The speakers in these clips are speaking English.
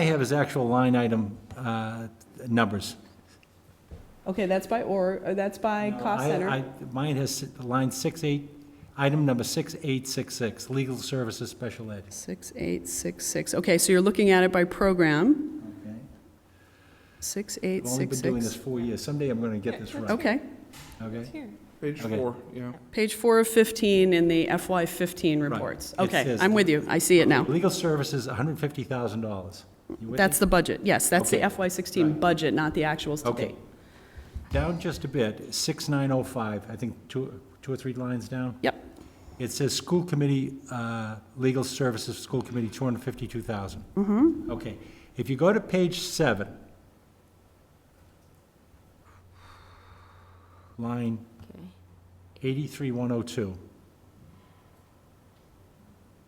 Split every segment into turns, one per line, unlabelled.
I have is actual line item uh, numbers.
Okay, that's by or, or that's by cost
I-
center.
I- Mine has s- line six eight, item number 6866, legal services special ed.
6866, okay, so you're looking at it by program,
I've only been doing this
6866.
four years. Someday I'm going to get this right,
Okay,
okay?
Page
Okay.
four, yeah.
page four of 15 in the FY15
Right.
reports.
It
Okay,
says-
I'm with you, I see it now.
Legal services, $150,000. You with
That's
me?
the budget, yes, that's the
Okay.
FY16
Right.
budget, not the actuals to
Okay.
date.
Down just a bit, 6905, I think two two or three lines down.
Yep,
It says school committee, uh, legal services, school committee, two hundred and fifty-two thousand. Mm-hmm. Okay, if you go to page seven, line
Okay.
eighty-three one oh two.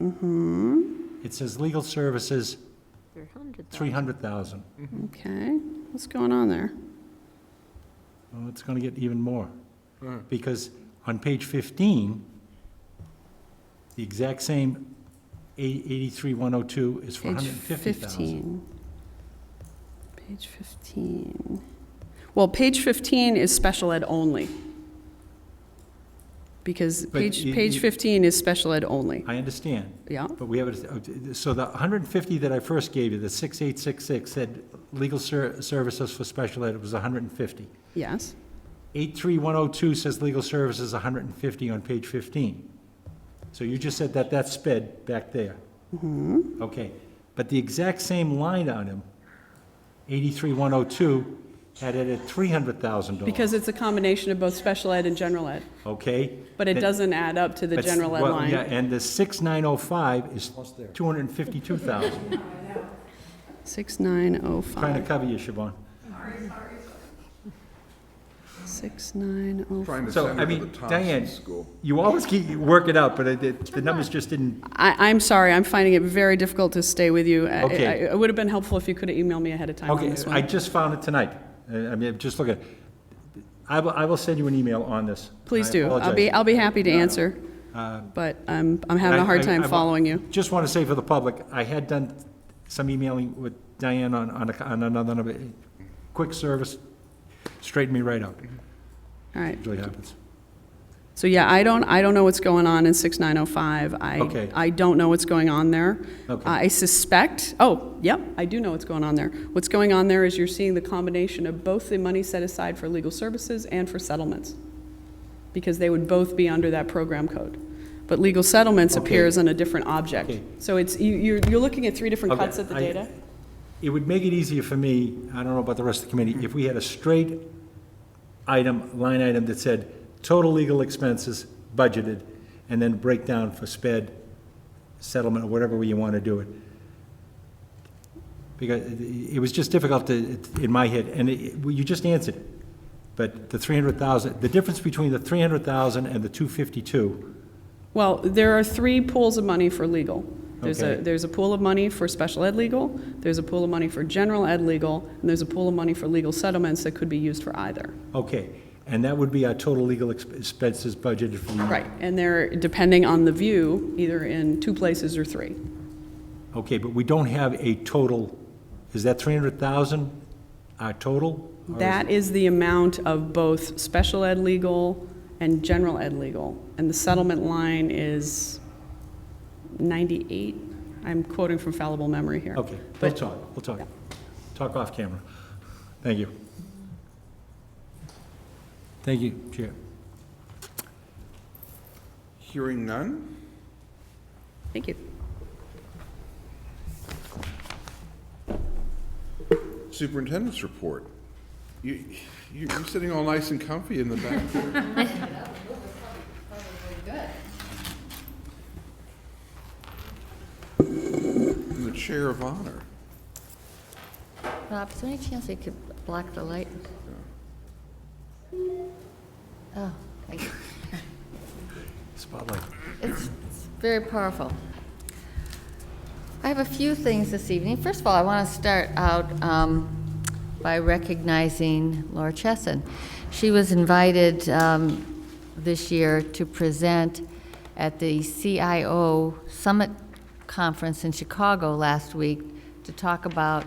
Mm-hmm. It says legal services,
Three hundred thousand.
three hundred thousand.
okay, what's going on there?
Well, it's gonna get even more.
Alright.
because on page 15, the exact same 83102 is for
Page
150,000.
15. Page 15. Well, page 15 is special ed only. Because
But
page,
you-
page
you-
15 is special ed only,
I understand,
yeah?
but we have, it. so the 150 that I first gave you, the 6866 said legal ser- services for special ed, it was 150.
Yes,
83102 says legal services 150 on page 15. So you just said that that sped back there. Okay, but the exact same line item, 83102, had it at $300,000.
because it's a combination of both special ed and general ed,
Okay?
but it
Then-
doesn't add up to the
but-
general ed
well, Yeah,
line.
and the 6905 is 252,000. Trying to
6905,
cover you, Siobhan.
6905.
Trying to
So,
send
I
her to
mean,
the
Diane-
Thompson School.
You always keep, you work it out, but it- it- the numbers just didn't,
I, I'm sorry, I'm finding it very difficult to stay with you. I-
Okay.
I- It would have been helpful if you could have emailed me ahead of time on
Okay,
this
I
one.
just found it tonight. Uh, I mean, just look at, I will, I will send you an email on this.
Please
I
do, I'll be,
apologize.
I'll be happy to
No, no.
answer.
Uh,
But I'm, I'm having a
I-
hard
I-
time
I wa-
following you.
Just want to say for the public, I had done some emailing with Diane on, on a- on another number. Quick service straightened me right out.
All right.
Usually happens.
So yeah, I don't, I don't know what's going on in 6905. I,
Okay.
I don't know what's going on there.
Okay.
I suspect, oh, yep, I do know what's going on there. What's going on there is you're seeing the combination of both the money set aside for legal services and for settlements, because they would both be under that program code. But legal settlements
Okay.
appears on a different object.
Okay.
So it's, you, you're, you're looking at three different
Okay,
cuts at the
I-
data?
It would make it easier for me, I don't know about the rest of the committee, if we had a straight item, line item that said, total legal expenses budgeted, and then breakdown for sped, settlement, or whatever way you want to do it. Because it it was just difficult to, in my head, and it- well, you just answered it. But the 300,000, the difference between the 300,000 and the 252,
Well, there are three pools of money for legal. There's a,
Okay.
there's a pool of money for special ed legal, there's a pool of money for general ed legal, and there's a pool of money for legal settlements that could be used for either.
okay, and that would be our total legal exp- expenses budgeted for the year.
Right, and they're, depending on the view, either in two places or three.
Okay, but we don't have a total, is that 300,000, our uh, total? Or is-
That is the amount of both special ed legal and general ed legal. And the settlement line is 98, I'm quoting from fallible memory here.
Okay, we'll
But
talk, we'll talk. Talk off camera. Thank you. Thank you, Chair.
Hearing none?
Thank you.
Superintendent's report. You, you- you're sitting all nice and comfy in the back. In the chair of honor.
Rob, is there any chance we could block the light? Oh, thank you.
Spotlight.
It's it's very powerful. I have a few things this evening. First of all, I want to start out um, by recognizing Laura Chesson. She was invited um, this year to present at the CIO Summit Conference in Chicago last week to talk about